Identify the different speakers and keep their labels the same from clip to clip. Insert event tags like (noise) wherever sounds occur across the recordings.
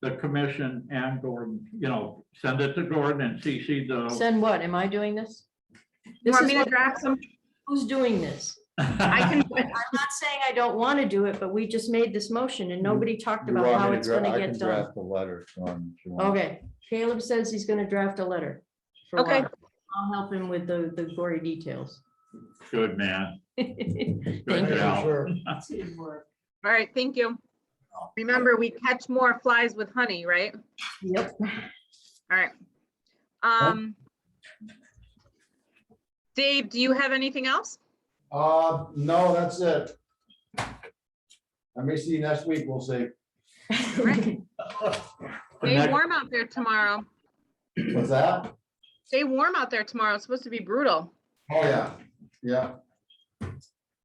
Speaker 1: the commission and Gordon, you know, send it to Gordon and CC (laughs) the.
Speaker 2: Send what? Am I doing this?
Speaker 3: You
Speaker 2: This
Speaker 3: want
Speaker 2: is
Speaker 3: me to
Speaker 2: what-
Speaker 3: draft some?
Speaker 2: who's doing this?
Speaker 3: I can, do it.
Speaker 2: I'm not saying I don't want to do it, but we just made this motion and nobody talked
Speaker 4: You
Speaker 2: about
Speaker 4: want
Speaker 2: how
Speaker 4: me to
Speaker 2: it's
Speaker 4: dra-
Speaker 2: gonna
Speaker 4: I can
Speaker 2: get done.
Speaker 4: Draft a letter. Dawn, if you want.
Speaker 2: Okay, Caleb says he's gonna draft a letter. for
Speaker 3: Okay.
Speaker 2: Robert. I'll help him with the, the gory details.
Speaker 1: Good man.
Speaker 2: Thank
Speaker 1: Good
Speaker 2: you.
Speaker 1: gal.
Speaker 3: all right, thank you. Remember, we catch more flies with honey, right?
Speaker 2: Yep,
Speaker 3: All right. Um. Dave, do you have anything else?
Speaker 4: Uh, no, that's it. I may see you next week, we'll see.
Speaker 3: Right.
Speaker 1: The
Speaker 3: Stay
Speaker 1: next-
Speaker 3: warm out there tomorrow.
Speaker 4: What's that?
Speaker 3: Stay warm out there tomorrow. It's supposed to be brutal.
Speaker 4: Oh, yeah, yeah.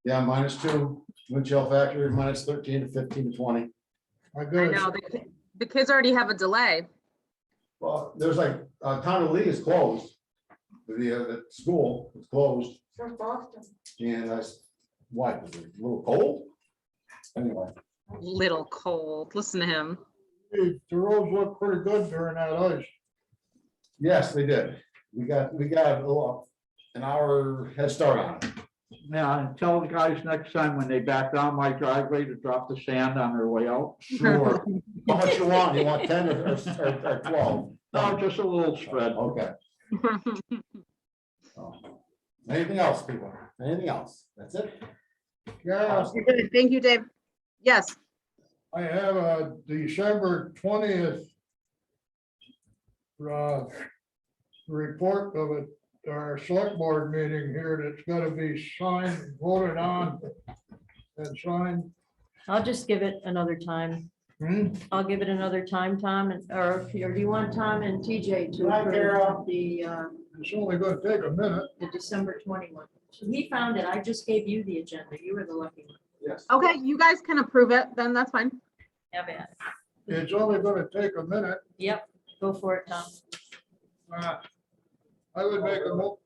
Speaker 4: Yeah, minus two, wind chill factor, minus thirteen to fifteen to twenty. My
Speaker 3: I know. the ki- The kids already have a delay.
Speaker 4: Well, there's like, uh, Town of Lee is closed. The, uh, the school is closed.
Speaker 5: From Boston.
Speaker 4: And I, s- why, was it a little cold? Anyway.
Speaker 3: Little cold. Listen to him. (laughs)
Speaker 6: Hey, The roads look pretty good during that ice.
Speaker 4: Yes, they did. We got, we got a little, an hour head start on it.
Speaker 1: Yeah, and tell the guys next time when they back down my driveway to drop the sand on their way out.
Speaker 4: Sure. (laughs) How much you want? You want ten or, or- or or twelve?
Speaker 1: No, Oh, just a little spread.
Speaker 4: Okay. Anything else, people? Anything else? That's it?
Speaker 6: Yeah,
Speaker 3: Thank you, Dave. Yes,
Speaker 6: I have a December twentieth uh, report of it, our select board meeting here that's gotta be signed, voted on and signed.
Speaker 2: I'll just give it another time.
Speaker 6: Hmm?
Speaker 2: I'll give it another time, Tom, and- or if you- or do you want Tom and TJ to
Speaker 6: Hi,
Speaker 2: approve
Speaker 6: Carol.
Speaker 2: the, uh,
Speaker 6: It's only gonna take a minute.
Speaker 2: the December twenty-one? He found it. I just gave you the agenda. You were the lucky one.
Speaker 4: Yes.
Speaker 3: okay, you guys can approve it, then that's fine.
Speaker 2: Have at it.
Speaker 6: It's only gonna take a minute.
Speaker 2: Yep, go for it, Tom.
Speaker 6: Uh, I would make a mo,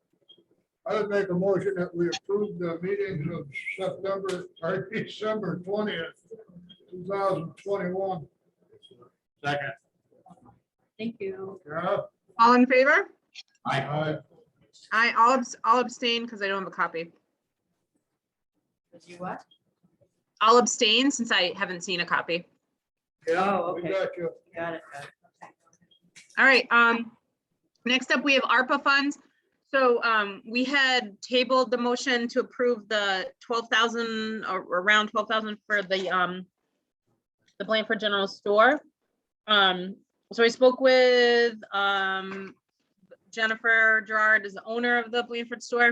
Speaker 6: I would make a motion that we approve the meetings of September, or (laughs) December twentieth, two thousand twenty-one.
Speaker 1: Second,
Speaker 2: Thank you.
Speaker 6: Yeah,
Speaker 3: All in favor?
Speaker 1: I,
Speaker 6: I,
Speaker 3: I, I'll abs- I'll abstain because I don't have a copy.
Speaker 2: You what?
Speaker 3: I'll abstain since I haven't seen a copy.
Speaker 2: Oh,
Speaker 6: we
Speaker 2: okay.
Speaker 6: got you.
Speaker 2: Got it. got it.
Speaker 3: All right, um, next up, we have ARPA funds. So, um, we had tabled the motion to approve the twelve thousand, or around twelve thousand for the, um, the Blanford General Store. Um, so I spoke with, um, Jennifer Gerard is the owner of the Blanford Store.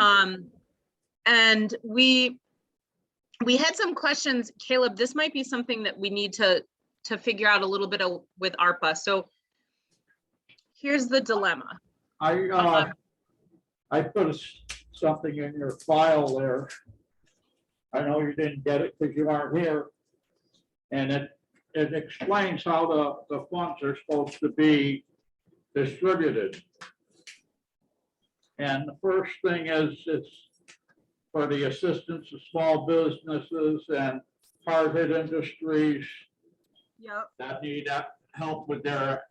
Speaker 3: Um, and we, we had some questions, Caleb, this might be something that we need to to figure out a little bit of with ARPA. So here's the dilemma.
Speaker 1: I, uh, I put a s- something in your file there. I know you didn't get it because you aren't here. And it, it explains how the, the funds are supposed to be distributed. And the first thing is, it's for the assistance of small businesses and hard-hit industries
Speaker 3: Yep.
Speaker 1: that need uh, help with their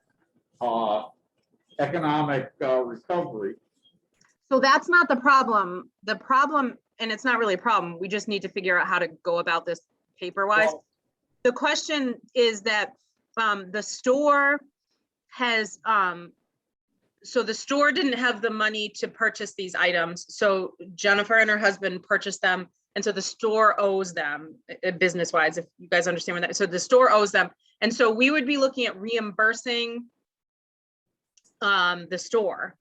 Speaker 1: uh, economic uh, recovery.
Speaker 3: So that's not the problem. The problem, and it's not really a problem, we just need to figure out how to go about this paper wise.
Speaker 1: Well-
Speaker 3: The question is that um the store has um so the store didn't have the money to purchase these items. So Jennifer and her husband purchased them. And so the store owes them business wise, if you guys understand what that, so the store owes them. And so we would be looking at reimbursing um the store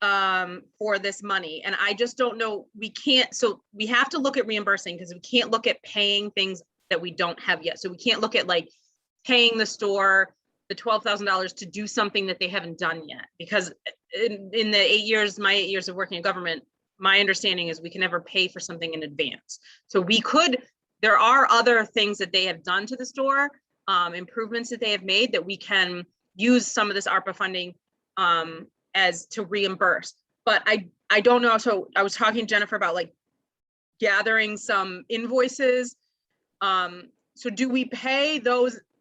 Speaker 3: um for this money and i just don't know we can't so we have to look at reimbursing because we can't look at paying things that we don't have yet so we can't look at like paying the store the $12,000 to do something that they haven't done yet because in, in the 8 years my 8 years of working in government my understanding is we can never pay for something in advance so we could there are other things that they have done to the store um improvements that they have made that we can use some of this ARPA funding um as to reimburse. But I, I don't know, so I was talking to Jennifer about like gathering some invoices. Um, so do we pay those